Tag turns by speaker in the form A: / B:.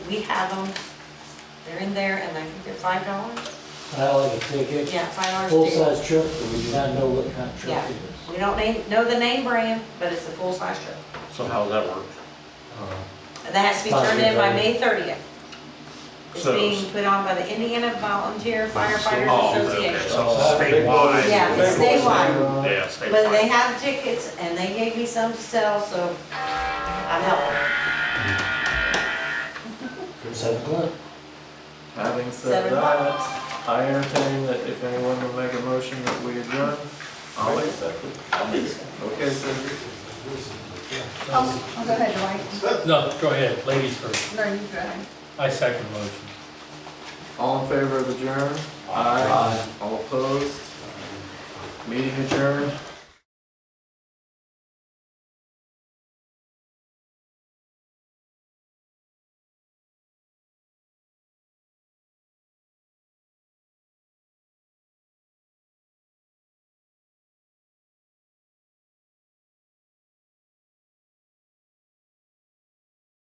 A: we have them, they're in there, and I think they're five dollars?
B: I like a ticket,
A: Yeah, five dollars.
B: full-size truck, but we do not know what kind of
A: Yeah.
B: truck it is.
A: We don't name, know the name brand, but it's a full-size truck.
C: So how's that work?
B: Uh,
A: And that has to be turned in by May thirtieth. It's
C: So-
A: being put on by the Indiana Volunteer Firefighters
C: Oh, okay,
A: Association.
C: so
B: Uh,
C: statewide.
A: Yeah, it's statewide.
C: Yeah,
A: But they
C: statewide.
A: have tickets, and they gave me some to sell, so I'm helping.
B: Seven o'clock.
A: Seven
D: Having said that, I entertain that if anyone will make a motion that we adjourn, I'll accept it. Okay, so
E: I'll, I'll go ahead, Dwight.
F: No, go ahead, ladies first.
E: No, you go ahead.
F: I second the motion.
D: all in favor of adjourn? All opposed? Meeting adjourned